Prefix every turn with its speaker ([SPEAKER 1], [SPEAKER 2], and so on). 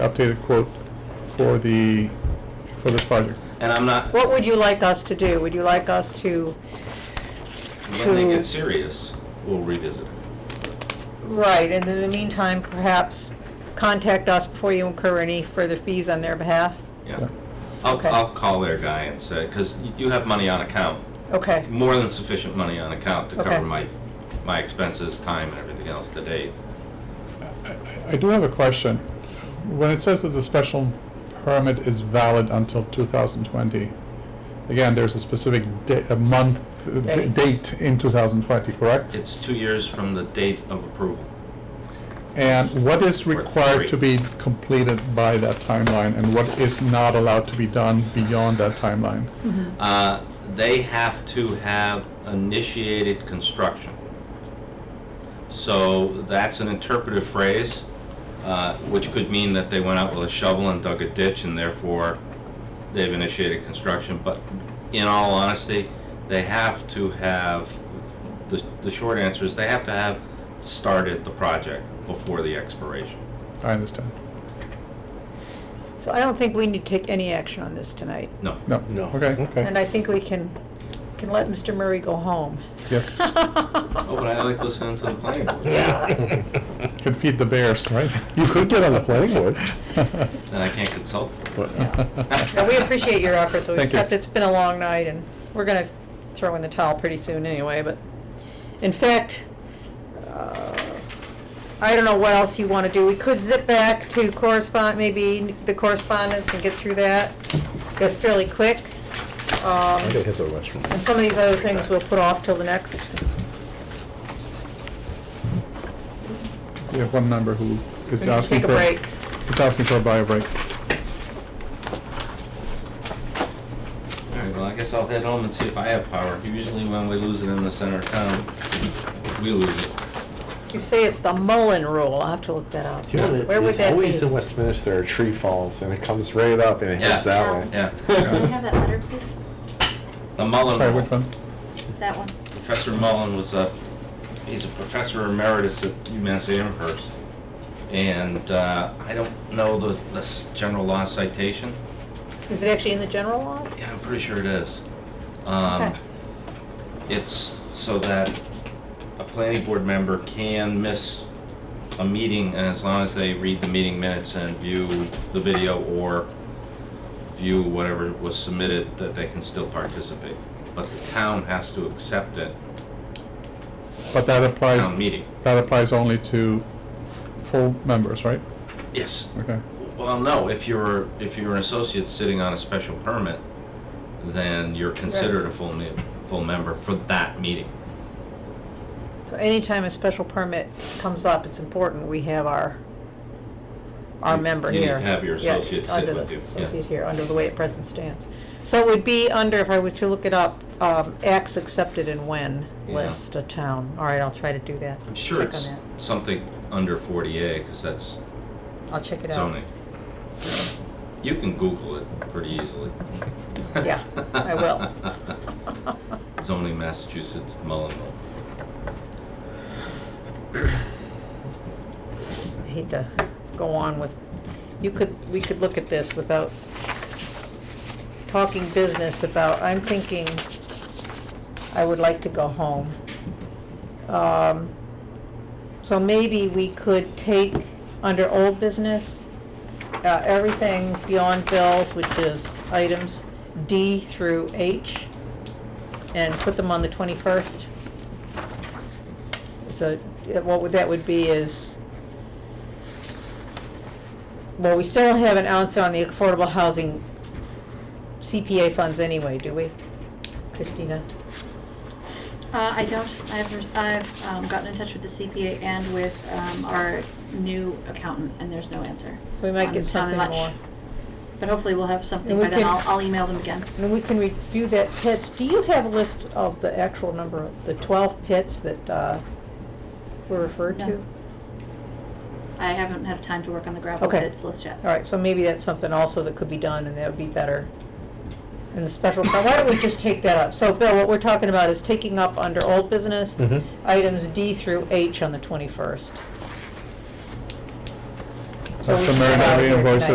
[SPEAKER 1] updated quote for the, for this project.
[SPEAKER 2] And I'm not,
[SPEAKER 3] What would you like us to do? Would you like us to,
[SPEAKER 2] when they
[SPEAKER 3] Who-
[SPEAKER 2] get serious, we'll revisit it.
[SPEAKER 3] right, and in the meantime, perhaps contact us before you incur any further fees on their behalf?
[SPEAKER 2] Yeah. I'll,
[SPEAKER 3] Okay.
[SPEAKER 2] I'll call their guy and say, because you have money on account,
[SPEAKER 3] Okay,
[SPEAKER 2] more than sufficient money on account to
[SPEAKER 3] Okay.
[SPEAKER 2] cover my, my expenses, time, and everything else to date.
[SPEAKER 1] I do have a question. When it says that the special permit is valid until 2020, again, there's a specific da- a month, uh, d-
[SPEAKER 3] Date.
[SPEAKER 1] date in 2020, correct?
[SPEAKER 2] It's two years from the date of approval.
[SPEAKER 1] And what is
[SPEAKER 2] Or
[SPEAKER 1] required
[SPEAKER 2] three.
[SPEAKER 1] to be completed by that timeline, and what is not allowed to be done beyond that timeline?
[SPEAKER 3] Mm-hmm.
[SPEAKER 2] Uh, They have to have initiated construction. So that's an interpretive phrase, uh, which could mean that they went out with a shovel and dug a ditch and therefore they've initiated construction. But in all honesty, they have to have, the, the short answer is they have to have started the project before the expiration.
[SPEAKER 1] I understand.
[SPEAKER 3] so I don't think we need to take any action on this tonight.
[SPEAKER 2] No.
[SPEAKER 1] No?
[SPEAKER 4] No.
[SPEAKER 1] Okay.
[SPEAKER 3] And I think we can, can let Mr. Murray go home.
[SPEAKER 1] Yes.
[SPEAKER 2] Oh, but I like listening to the planning board.
[SPEAKER 1] Could feed the bears, right?
[SPEAKER 4] You could get on the planning board.
[SPEAKER 2] Then I can't consult.
[SPEAKER 3] Now, we appreciate your efforts, we've
[SPEAKER 1] Thank you.
[SPEAKER 3] kept, it's been a long night, and we're gonna throw in the towel pretty soon anyway, but, in fact, uh, I don't know what else you wanna do, we could zip back to correspond, maybe the correspondence and get through that, that's fairly quick. Um,
[SPEAKER 4] I gotta hit the restroom.
[SPEAKER 3] and some of these other things we'll put off till the next,
[SPEAKER 1] We have one member who is
[SPEAKER 3] We just
[SPEAKER 1] asking
[SPEAKER 3] take a
[SPEAKER 1] for.
[SPEAKER 3] break.
[SPEAKER 1] Is asking for a bio break.
[SPEAKER 2] All right, well, I guess I'll head home and see if I have power. Usually when we lose it in the center of town, we lose it.
[SPEAKER 3] you say it's the Mullen Rule, I'll have to look that up. Where would
[SPEAKER 4] There's
[SPEAKER 3] that be?
[SPEAKER 4] always in Westminster, a tree falls and it comes right up and it hits
[SPEAKER 2] Yeah.
[SPEAKER 4] that way.
[SPEAKER 2] Yeah.
[SPEAKER 5] Can we have that letter, please?
[SPEAKER 2] The Mullen,
[SPEAKER 1] Sorry, which one?
[SPEAKER 5] That one.
[SPEAKER 2] Professor Mullen was a, he's a professor emeritus at UMass Amherst. And uh, I don't know the, the s- general law citation.
[SPEAKER 3] Is it actually in the general laws?
[SPEAKER 2] Yeah, I'm pretty sure it is. Um,
[SPEAKER 3] Okay.
[SPEAKER 2] It's so that a planning board member can miss a meeting, and as long as they read the meeting minutes and view the video or view whatever was submitted, that they can still participate. But the town has to accept it,
[SPEAKER 1] But that applies.
[SPEAKER 2] town meeting.
[SPEAKER 1] That applies only to full members, right?
[SPEAKER 2] Yes.
[SPEAKER 1] Okay.
[SPEAKER 2] Well, no, if you're, if you're an associate sitting on a special permit, then you're considered a full, me- full member for that meeting.
[SPEAKER 3] So anytime a special permit comes up, it's important we have our, our
[SPEAKER 2] You-
[SPEAKER 3] member
[SPEAKER 2] you need
[SPEAKER 3] here.
[SPEAKER 2] to have your
[SPEAKER 3] Yeah,
[SPEAKER 2] associate sit
[SPEAKER 3] under the
[SPEAKER 2] with you, yeah.
[SPEAKER 3] Associate here, under the way it present stands. So it would be under, if I were to look it up, um, acts accepted and when
[SPEAKER 2] Yeah.
[SPEAKER 3] list of town. All right, I'll try to do that.
[SPEAKER 2] I'm sure
[SPEAKER 3] Check on
[SPEAKER 2] it's
[SPEAKER 3] that.
[SPEAKER 2] something under 40A, because that's
[SPEAKER 3] I'll check it out.
[SPEAKER 2] zoning. You can Google it pretty easily.
[SPEAKER 3] Yeah, I will.
[SPEAKER 2] Zoning Massachusetts Mullen Law.
[SPEAKER 3] I hate to go on with, you could, we could look at this without talking business about, I'm thinking I would like to go home. Um, So maybe we could take under old business, uh, everything beyond bills, which is items D through H, and put them on the twenty-first. So uh, what would, that would be is well, we still don't have an answer on the affordable housing CPA funds anyway, do we? Christina?
[SPEAKER 5] Uh, I don't, I've, I've um, gotten in touch with the CPA and with, um, our new accountant, and there's no answer.
[SPEAKER 3] So we might
[SPEAKER 5] on-
[SPEAKER 3] get
[SPEAKER 5] on
[SPEAKER 3] something
[SPEAKER 5] much.
[SPEAKER 3] more.
[SPEAKER 5] But hopefully we'll have something
[SPEAKER 3] we
[SPEAKER 5] by then,
[SPEAKER 3] can-
[SPEAKER 5] I'll, I'll email them again.
[SPEAKER 3] And we can review that pits. Do you have a list of the actual number, of the twelve pits that, uh, were referred to?
[SPEAKER 5] No. I haven't had time to work on the gravel
[SPEAKER 3] Okay.
[SPEAKER 5] pits list yet.
[SPEAKER 3] All right, so maybe that's something also that could be done and that would be better. And the special, now, why don't we just take that up? So Bill, what we're talking about is taking up under old business,
[SPEAKER 4] Mhm.
[SPEAKER 3] items D through H on the twenty-first.
[SPEAKER 1] Sounds
[SPEAKER 3] those
[SPEAKER 1] Customary
[SPEAKER 3] are
[SPEAKER 1] invoices.
[SPEAKER 3] recognized.